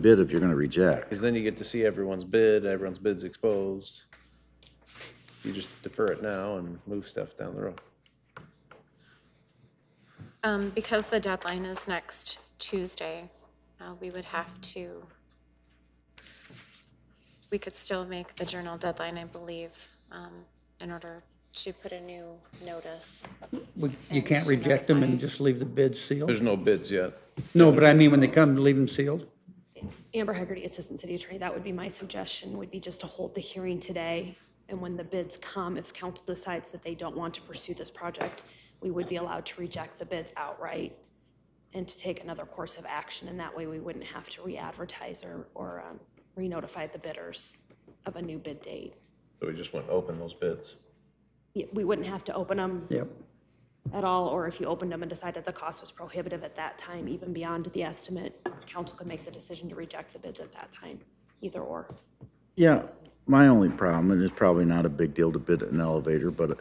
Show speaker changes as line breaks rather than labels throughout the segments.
bid if you're gonna reject.
Because then you get to see everyone's bid, everyone's bid's exposed. You just defer it now and move stuff down the road.
Um, because the deadline is next Tuesday, uh, we would have to, we could still make the journal deadline, I believe, um, in order to put a new notice.
We- You can't reject them and just leave the bid
There's
sealed?
no bids yet.
No, but I mean, when they come, leave them sealed?
Amber Hagerty, Assistant City Attorney, that would be my suggestion, would be just to hold the hearing today. And when the bids come, if council decides that they don't want to pursue this project, we would be allowed to reject the bids outright and to take another course of action. And that way, we wouldn't have to re-advertise or, or um, re-notify the bidders of a new bid date.
So we just went open those bids.
Yeah, We wouldn't have to open them
Yep.
at all, or if you opened them and decided the cost was prohibitive at that time, even beyond the estimate, council could make the decision to reject the bids at that time, either or.
Yeah, my only problem, and it's probably not a big deal to bid an elevator, but,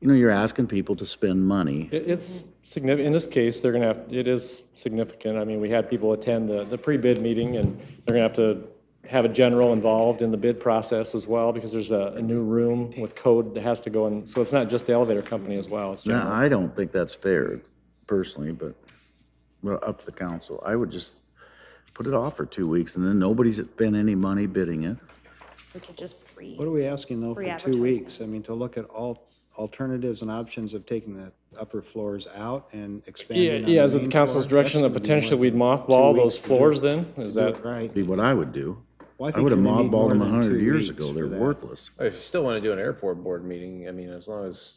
you know, you're asking people to spend money.
It- It's significant, in this case, they're gonna have, it is significant. I mean, we had people attend the, the pre-bid meeting, and they're gonna have to have a general involved in the bid process as well, because there's a, a new room with code that has to go in, so it's not just the elevator company as well, it's
Now,
general.
I don't think that's fair personally, but, well, up to the council. I would just put it off for two weeks and then nobody's spent any money bidding it.
We could just re.
What are we asking though for
Re-advertise.
two weeks? I mean, to look at all alternatives and options of taking the upper floors out and expanding
Yeah,
on
yeah, is it
the
the
main
council's
floor?
direction
That's
that
gonna be
potentially
more
we'd
than
mothball
two
those
weeks to do it.
floors then? Is that?
Right.
Be what I would do.
Well,
I
think
would have
you're gonna need
mothballed
more
them
than two
100 years
weeks
ago.
for
They're
that.
worthless.
If you still want to do an airport board meeting, I mean, as long as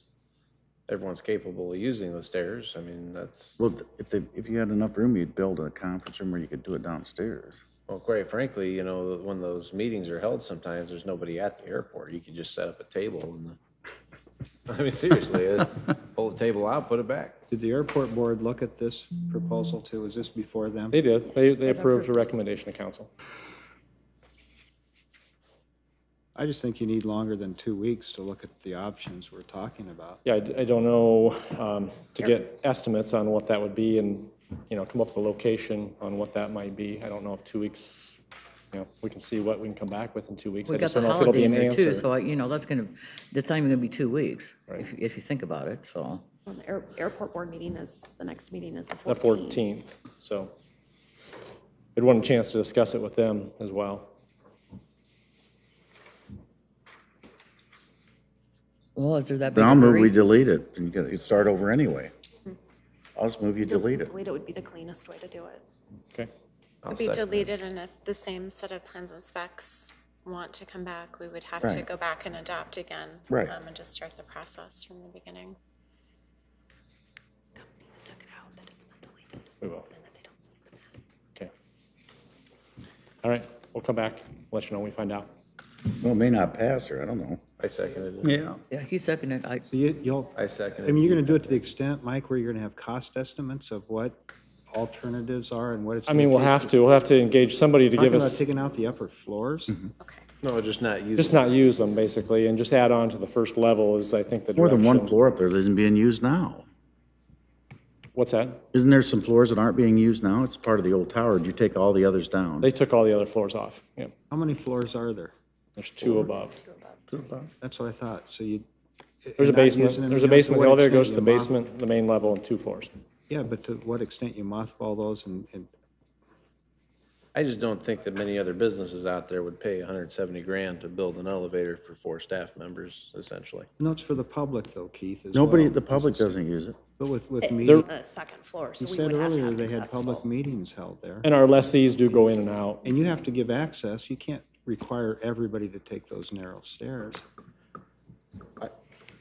everyone's capable of using the stairs, I mean, that's,
Well, if they, if you had enough room, you'd build a conference room where you could do it downstairs.
well, quite frankly, you know, when those meetings are held, sometimes there's nobody at the airport. You could just set up a table and, I mean, seriously, uh, pull the table out, put it back.
Did the airport board look at this proposal too? Was this before them?
They did, they, they approved a recommendation to council.
I just think you need longer than two weeks to look at the options we're talking about.
Yeah, I, I don't know, um, to get estimates on what that would be and, you know, come up with a location on what that might be. I don't know if two weeks, you know, we can see what we can come back with in two weeks. I
We got
just
the
don't know if it'll
holiday
be
in
an
there too,
answer.
so, you know, that's gonna, that's not even gonna be two weeks,
Right.
if, if you think about it, so.
Well, the air- airport board meeting is, the next meeting is the
The
14th.
14th, so. I'd want a chance to discuss it with them as well.
Well, is there that big
Then
of
I'll
a
move we
hurry?
delete it and you can, you start over anyway. I'll just move you delete it.
Delete it would be the cleanest way to do it.
Okay,
I'll
Would be
second that.
deleted and if the same set of plans and specs want to come back, we would have to
Right.
go back and adopt again.
Right.
Um, and just start the process from the beginning.
Took it out, that it's been deleted,
we will,
and that they don't select the map.
okay. All right, we'll come back, let you know when we find out.
Well, it may not pass her, I don't know.
I seconded it.
Yeah.
Yeah, he's seconded, I,
So you, you'll,
I seconded
I mean, you're gonna do it to the extent, Mike, where you're gonna have cost estimates of what alternatives are and what it's.
I mean, we'll
gonna
have to, we'll have to engage somebody to
take.
give
Talking about
us,
taking out the upper floors?
Okay.
No, just not using.
just not use them basically, and just add on to the first level is, I think, the
More than one
direction.
floor up there that isn't being used now.
What's that?
Isn't there some floors that aren't being used now? It's part of the old tower. Do you take all the others down?
They took all the other floors off. Yeah,
How many floors are there?
there's two above.
That's what I thought, so you.
There's a
you're not using
basement,
them,
there's
you
a
know, to
basement,
what
the elevator
extent
goes to
you
the
moth-
basement, the main level, and two floors.
Yeah, but to what extent you mothball those and, and
I just don't think that many other businesses out there would pay 170 grand to build an elevator for four staff members, essentially.
notes for the public thoc Keith, as well.
Nobody, the public doesn't use it.
But with, with
They're-
meetings,
The second floor, so
you
we
said
would have to
earlier,
have
they had
accessible.
public meetings held there.
And our lessees do go in and out.
And you have to give access, you can't require everybody to take those narrow stairs. I-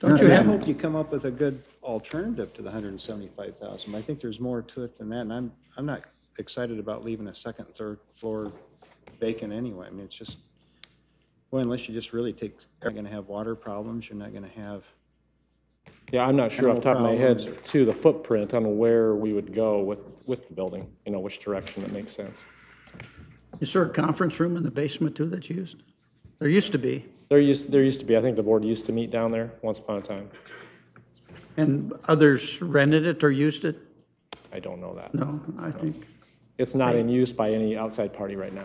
Don't you, I hope you come up with a good alternative to the hundred and seventy-five thousand, I think there's more to it than that, and I'm, I'm not excited about leaving a second, third floor vacant anyway, I mean, it's just, well, unless you just really take, you're gonna have water problems, you're not gonna have,
Yeah, I'm not sure off the top of my head
Animal
to the footprint on where we would go with, with the building, you know, which direction that makes sense.
Is there a conference room in the basement too that's used? There used to be.
There used, there used to be, I think the board used to meet down there once upon a time.
And others rented it or used it?
I don't know that.
No, I think.
It's not in use by any outside party right now.